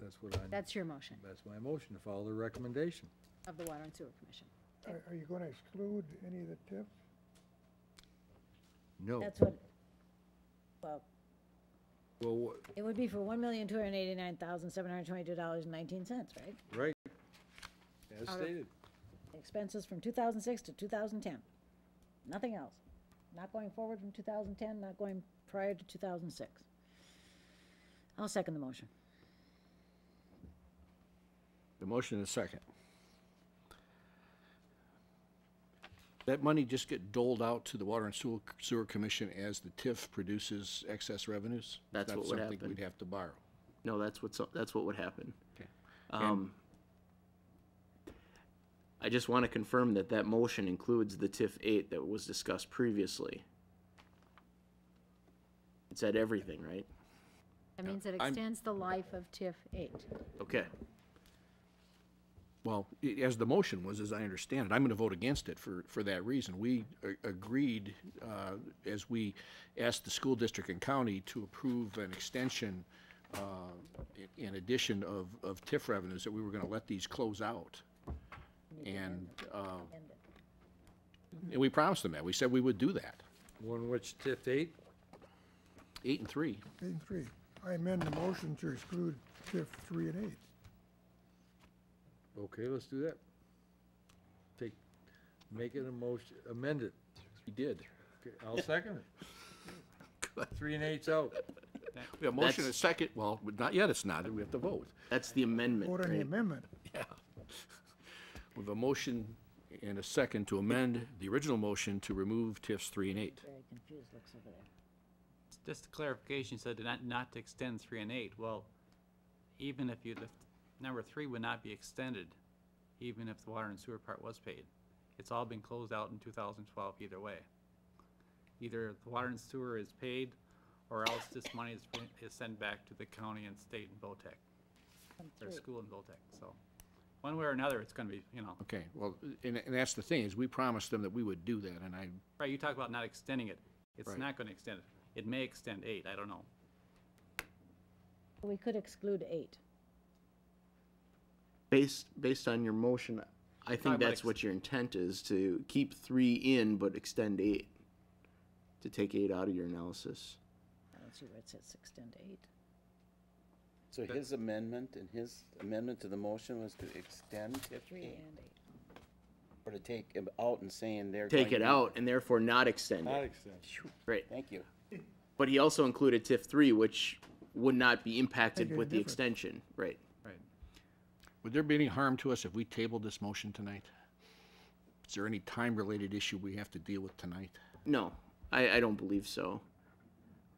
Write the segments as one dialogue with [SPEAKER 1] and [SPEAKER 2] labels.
[SPEAKER 1] That's what I,
[SPEAKER 2] That's your motion
[SPEAKER 1] that's my motion, to follow the recommendation.
[SPEAKER 2] of the Water and Sewer Commission.
[SPEAKER 3] Are, are you gonna exclude any of the TIF?
[SPEAKER 4] Oh.
[SPEAKER 1] No.
[SPEAKER 5] That's what, well,
[SPEAKER 1] Well, wha-
[SPEAKER 5] it would be for one million, two hundred and eighty-nine thousand, seven hundred and twenty-two dollars and nineteen cents, right?
[SPEAKER 1] right, as
[SPEAKER 2] Out of-
[SPEAKER 1] stated.
[SPEAKER 5] Expenses from two thousand six to two thousand ten. Nothing else. Not going forward from two thousand ten, not going prior to two thousand six. I'll second the motion.
[SPEAKER 6] The motion is second. That money just get doled out to the Water and Sewer, Sewer Commission as the TIF produces excess revenues? It's
[SPEAKER 7] That's
[SPEAKER 6] not
[SPEAKER 7] what would
[SPEAKER 6] Something
[SPEAKER 7] happen.
[SPEAKER 6] we'd have to borrow.
[SPEAKER 7] No, that's what's, that's what would happen.
[SPEAKER 6] Okay.
[SPEAKER 7] Um, I just want to confirm that that motion includes the TIF eight that was discussed previously. It said everything, right?
[SPEAKER 2] That means it
[SPEAKER 6] I'm-
[SPEAKER 2] extends the life of TIF eight.
[SPEAKER 7] Okay,
[SPEAKER 6] Well, i- as the motion was, as I understand it, I'm going to vote against it for, for that reason. We a- agreed, uh, as we asked the school district and county to approve an extension uh, i- in addition of, of TIF revenues, that we were going to let these close out. And, uh,
[SPEAKER 5] End it.
[SPEAKER 6] and we promised them that. We said we would do that.
[SPEAKER 1] One which TIF eight,
[SPEAKER 6] Eight and three.
[SPEAKER 3] Eight and three. I amend the motion to exclude TIF three and eight.
[SPEAKER 1] okay, let's do that. Take, make it a motion, amend it.
[SPEAKER 6] We did.
[SPEAKER 1] Okay, I'll second it. Three and eight's out.
[SPEAKER 6] We have a motion
[SPEAKER 7] That's-
[SPEAKER 6] and a second. Well, not yet, it's not. We have to vote.
[SPEAKER 7] that's the amendment,
[SPEAKER 3] Vote on the
[SPEAKER 7] right?
[SPEAKER 3] amendment.
[SPEAKER 6] We have a motion and a second to amend the original motion to remove TIFs three and eight.
[SPEAKER 5] Very confused looks over there.
[SPEAKER 8] Just a clarification, you said not, not to extend three and eight. Well, even if you, the number three would not be extended, even if the water and sewer part was paid. It's all been closed out in two thousand twelve either way. Either the water and sewer is paid, or else this money is, is sent back to the county and state and VOTEC, or school and VOTEC, so. One way or another, it's gonna be, you know,
[SPEAKER 6] Okay, well, and, and that's the thing, is we promised them that we would do that, and I,
[SPEAKER 8] right, you talk about not extending it. It's
[SPEAKER 6] Right.
[SPEAKER 8] not gonna extend it. It may extend eight, I don't know.
[SPEAKER 5] We could exclude eight.
[SPEAKER 7] Based, based on your motion, I think
[SPEAKER 8] about
[SPEAKER 7] that's
[SPEAKER 8] ex-
[SPEAKER 7] what your intent is, to keep three in but extend eight. To take eight out of your analysis.
[SPEAKER 5] I don't see where it says extend to eight.
[SPEAKER 9] So his amendment and his amendment to the motion was to extend TIF
[SPEAKER 5] Three
[SPEAKER 9] eight,
[SPEAKER 5] and eight.
[SPEAKER 9] or to take him out and saying they're.
[SPEAKER 7] Take
[SPEAKER 9] going
[SPEAKER 7] it
[SPEAKER 9] to-
[SPEAKER 7] out and therefore not extend it,
[SPEAKER 1] extend.
[SPEAKER 7] right?
[SPEAKER 9] Thank you.
[SPEAKER 7] But he also included TIF three, which would not be impacted
[SPEAKER 3] Make it
[SPEAKER 7] with the
[SPEAKER 3] different.
[SPEAKER 7] extension, right?
[SPEAKER 8] Right.
[SPEAKER 6] would there be any harm to us if we tabled this motion tonight? Is there any time-related issue we have to deal with tonight?
[SPEAKER 7] No, I, I don't believe so.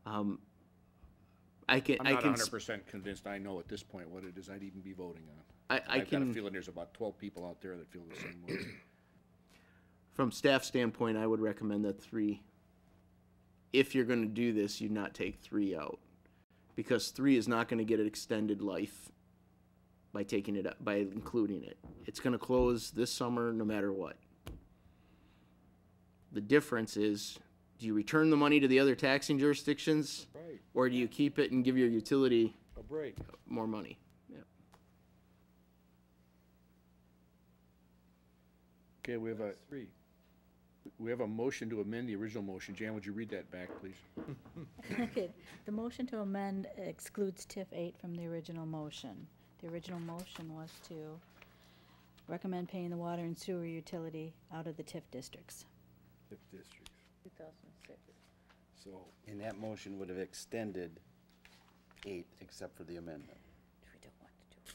[SPEAKER 7] Um, I can,
[SPEAKER 6] I'm
[SPEAKER 7] I
[SPEAKER 6] not
[SPEAKER 7] can,
[SPEAKER 6] hundred
[SPEAKER 7] sp-
[SPEAKER 6] percent convinced I know at this point what it is I'd even be voting
[SPEAKER 7] I,
[SPEAKER 6] on.
[SPEAKER 7] I
[SPEAKER 6] I've got a
[SPEAKER 7] can,
[SPEAKER 6] feeling there's about twelve people out there that feel the same way.
[SPEAKER 7] from staff standpoint, I would recommend that three. If you're gonna do this, you not take three out, because three is not gonna get an extended life by taking it, up by including it. It's gonna close this summer no matter what. The difference is, do you return the money to the other taxing jurisdictions?
[SPEAKER 1] Right,
[SPEAKER 7] Or do you keep it and give your utility
[SPEAKER 1] a break.
[SPEAKER 7] more money? Yeah.
[SPEAKER 6] Okay, we have a,
[SPEAKER 1] Three.
[SPEAKER 6] we have a motion to amend the original motion. Jan, would you read that back, please?
[SPEAKER 10] Okay, the motion to amend excludes TIF eight from the original motion. The original motion was to recommend paying the water and sewer utility out of the TIF districts.
[SPEAKER 1] TIF districts.
[SPEAKER 5] Two thousand six.
[SPEAKER 1] So,
[SPEAKER 9] And that motion would have extended eight except for the amendment.
[SPEAKER 5] We don't want to do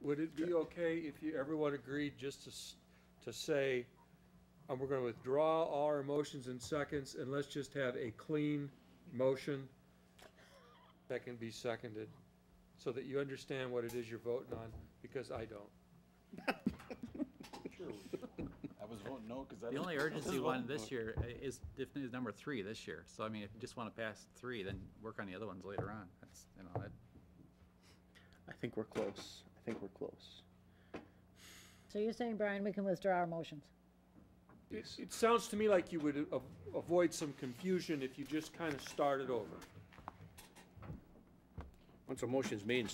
[SPEAKER 5] it.
[SPEAKER 4] Would it be okay if you, everyone agreed just to, s- to say, and we're gonna withdraw all our motions and seconds, and let's just have a clean motion that can be seconded, so that you understand what it is you're voting on, because I don't.
[SPEAKER 9] I was voting no because I.
[SPEAKER 8] The only urgency one this year i- is, def- is number three this year. So I mean, if you just want to pass three, then work on the other ones later on. That's, you know, that,
[SPEAKER 7] I think we're close. I think we're close.
[SPEAKER 5] So you're saying, Brian, we can withdraw our motions?
[SPEAKER 4] It, it sounds to me like you would a- avoid some confusion if you just kinda started over.
[SPEAKER 6] Once a motion is made and